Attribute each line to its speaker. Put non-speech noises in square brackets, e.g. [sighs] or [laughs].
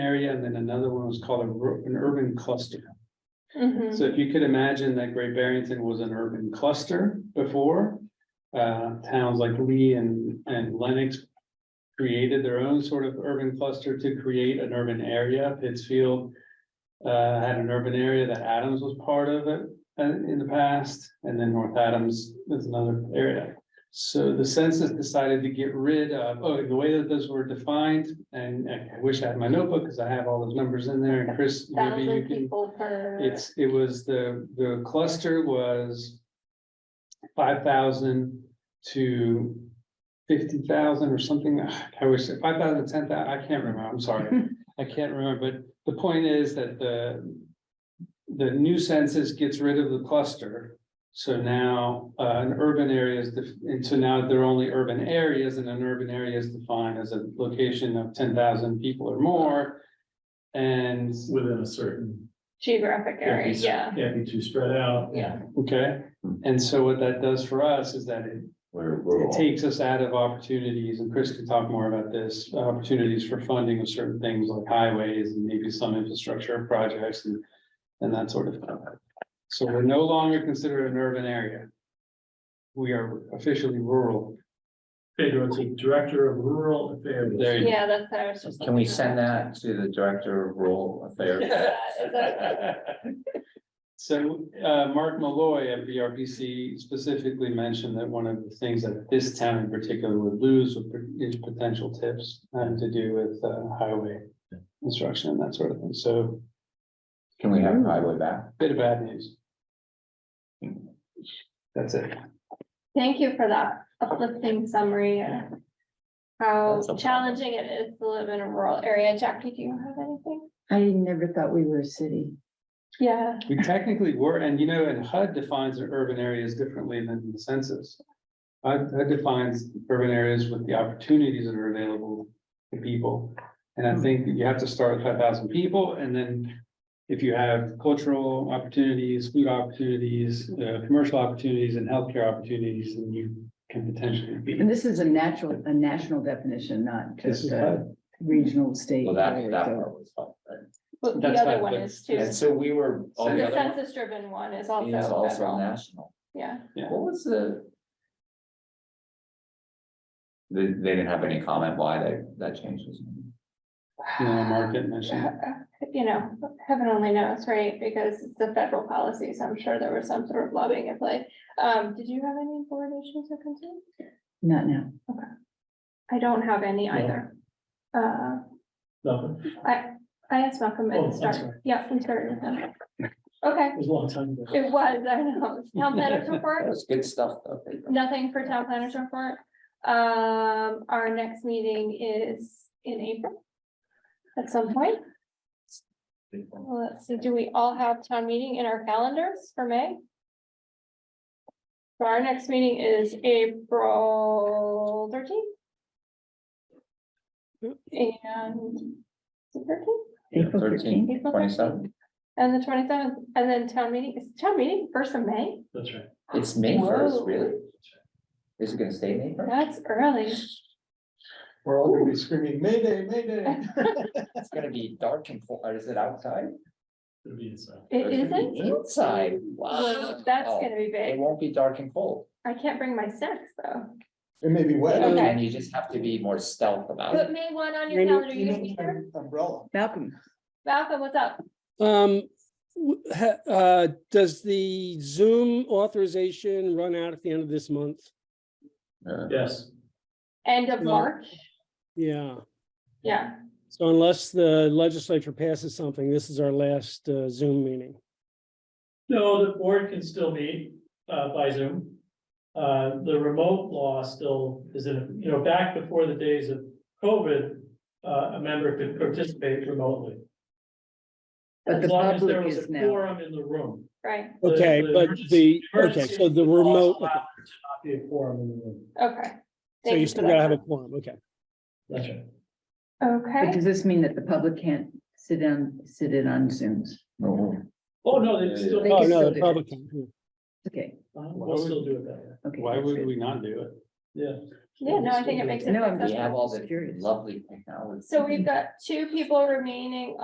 Speaker 1: area, and then another one was called a ru- an urban cluster.
Speaker 2: Mhm.
Speaker 1: So if you could imagine that Great Barrington was an urban cluster before, uh, towns like Lee and, and Lennox created their own sort of urban cluster to create an urban area. Pittsfield uh, had an urban area that Adams was part of it uh, in the past, and then North Adams is another area. So the census decided to get rid of, oh, and the way that those were defined, and I wish I had my notebook because I have all those numbers in there, and Chris, maybe you
Speaker 2: Thousand
Speaker 1: can.
Speaker 2: people per.
Speaker 1: It's, it was the, the cluster was. Five thousand to fifty thousand or something, Ah, I wish, five thousand, ten thousand, I can't remember, I'm sorry, I can't remember, but the point is that the. The new census gets rid of the cluster, so now, uh, an urban area is, def- and so now there are only urban areas, and an urban area is defined as a location of ten thousand people or more. And
Speaker 3: within a certain,
Speaker 2: Geographic area, yeah.
Speaker 3: can't be too spread out.
Speaker 2: Yeah.
Speaker 1: Okay, and so what that does for us is that it,
Speaker 4: Where
Speaker 1: it
Speaker 4: rural.
Speaker 1: takes us out of opportunities, and Chris can talk more about this, opportunities for funding of certain things like highways and maybe some infrastructure projects and, and that sort of thing. So we're no longer considered an urban area. We are officially rural.
Speaker 3: Pedro, it's a director of rural affairs.
Speaker 1: There you
Speaker 2: Yeah, that's what I was just.
Speaker 4: Can we
Speaker 2: looking
Speaker 4: send
Speaker 2: at.
Speaker 4: that to the director of rural affairs?
Speaker 2: Yeah, is that-
Speaker 1: So, uh, Mark Malloy at BRPC specifically mentioned that one of the things that this town in particular would lose would be- is potential tips. um, to do with, uh, highway construction and that sort of thing, so
Speaker 4: Can we have highway back?
Speaker 1: bit of bad news. That's it.
Speaker 2: Thank you for that uplifting summary. of How
Speaker 4: That's a-
Speaker 2: challenging it is to live in a rural area. Jackie, do you have anything?
Speaker 5: I never thought we were a city.
Speaker 2: Yeah.
Speaker 1: We technically were, and you know, and HUD defines the urban areas differently than the census. HUD HUD defines urban areas with the opportunities that are available to people. And
Speaker 5: Hmm.
Speaker 1: I think that you have to start with five thousand people and then. If you have cultural opportunities, food opportunities, uh, commercial opportunities and healthcare opportunities, then you can potentially be.
Speaker 5: And this is a natural, a national definition, not
Speaker 1: This
Speaker 5: just uh,
Speaker 1: is
Speaker 5: a
Speaker 1: HUD.
Speaker 5: regional state.
Speaker 4: Well, that,
Speaker 5: whatever,
Speaker 4: that
Speaker 5: so-
Speaker 4: part was fun, right?
Speaker 2: But the
Speaker 1: That's
Speaker 2: other
Speaker 1: fine,
Speaker 2: one
Speaker 1: but-
Speaker 2: is too.
Speaker 4: And so we were, all the
Speaker 2: The
Speaker 4: other one
Speaker 2: census driven one is
Speaker 4: is
Speaker 2: also
Speaker 4: also
Speaker 2: federal.
Speaker 4: national.
Speaker 2: Yeah.
Speaker 1: Yeah.
Speaker 4: What was the? They, they didn't have any comment why that, that change was. made.
Speaker 1: You know, market mentioned.
Speaker 2: [sighs] You know, heaven only knows, right? Because it's a federal policy, so I'm sure there was some sort of lobbying at play. Um, did you have any board issues or concerns?
Speaker 5: Not now.
Speaker 2: I don't have any either. Uh,
Speaker 3: Nothing.
Speaker 2: I asked Malcolm
Speaker 3: Oh,
Speaker 2: at the
Speaker 3: that's
Speaker 2: start.
Speaker 3: right.
Speaker 2: Yeah, we started with him. Okay,
Speaker 3: It was a long time ago.
Speaker 2: it was, I know. Town
Speaker 3: [laughs]
Speaker 2: planners
Speaker 4: That
Speaker 2: report,
Speaker 4: was good stuff though.
Speaker 2: nothing for town planners report. Um, our next meeting is in April. At some point, Well, let's see, do we all have town meeting in our calendars for May? So Our next meeting is April thirteenth. And. Thirteenth?
Speaker 4: Yeah,
Speaker 5: April
Speaker 4: 13,
Speaker 5: 13th.
Speaker 2: April
Speaker 4: 27.
Speaker 2: And the twenty seventh, and then town meeting, is town meeting first of May?
Speaker 3: That's right.
Speaker 4: It's May first,
Speaker 2: Whoa.
Speaker 4: really? Is it gonna stay May first?
Speaker 2: That's early.
Speaker 3: We're all gonna be screaming, Mayday, Mayday.
Speaker 4: It's gonna be dark and cold, or is it outside?
Speaker 3: It'll be inside.
Speaker 4: Or
Speaker 2: It
Speaker 4: is gonna be
Speaker 2: isn't?
Speaker 4: Inside, wow.
Speaker 2: Well, That's gonna be
Speaker 4: It
Speaker 2: big.
Speaker 4: won't be dark and cold.
Speaker 2: I can't bring my snacks though.
Speaker 6: It may be wet.
Speaker 2: Okay.
Speaker 4: And you just have to be more stealth about
Speaker 2: Put
Speaker 4: it.
Speaker 2: May one on your calendar. You can be here.
Speaker 6: Umbrella.
Speaker 5: Malcolm,
Speaker 2: Malcolm, what's up?
Speaker 7: Um, w- ha- uh, does the Zoom authorization run out at the end of this month?
Speaker 3: Yes.
Speaker 2: End of
Speaker 7: No.
Speaker 2: March?
Speaker 7: Yeah,
Speaker 2: Yeah,
Speaker 7: so unless the legislature passes something, this is our last uh, Zoom meeting.
Speaker 3: No, the board can still meet uh, by Zoom. Uh, The remote law still is in, you know, back before the days of COVID, uh, a member could participate remotely.
Speaker 5: but the
Speaker 3: As long as there
Speaker 5: public
Speaker 3: was a
Speaker 5: is now.
Speaker 3: Quorum in the room.
Speaker 2: right.
Speaker 3: The-
Speaker 7: Okay,
Speaker 3: the
Speaker 7: but the,
Speaker 3: emergency-
Speaker 7: okay, so
Speaker 3: emergency
Speaker 7: the
Speaker 3: laws
Speaker 7: remote,
Speaker 3: allow there to Not be a quorum in the room.
Speaker 2: Okay.
Speaker 7: so
Speaker 2: Thank
Speaker 7: you
Speaker 2: for
Speaker 7: still
Speaker 2: that.
Speaker 7: gotta have a quorum, okay.
Speaker 3: That's right.
Speaker 5: But
Speaker 2: Okay,
Speaker 5: does this mean that the public can't sit down, sit in on Zooms?
Speaker 3: Oh, no, they still. Uh-huh.
Speaker 5: They
Speaker 7: Oh,
Speaker 5: can
Speaker 7: no,
Speaker 5: still
Speaker 7: the
Speaker 5: do
Speaker 7: public, can, yeah.
Speaker 5: Okay,
Speaker 3: We'll still do it that way.
Speaker 5: okay.
Speaker 1: Why
Speaker 5: that's
Speaker 1: would
Speaker 5: good.
Speaker 1: we not do it?
Speaker 3: Yeah.
Speaker 2: Yeah, no, I think it makes it.
Speaker 5: No, I'm
Speaker 4: We
Speaker 5: just-
Speaker 2: accessible.
Speaker 4: have all the
Speaker 5: Curious.
Speaker 4: lovely technology.
Speaker 2: So we've got two people remaining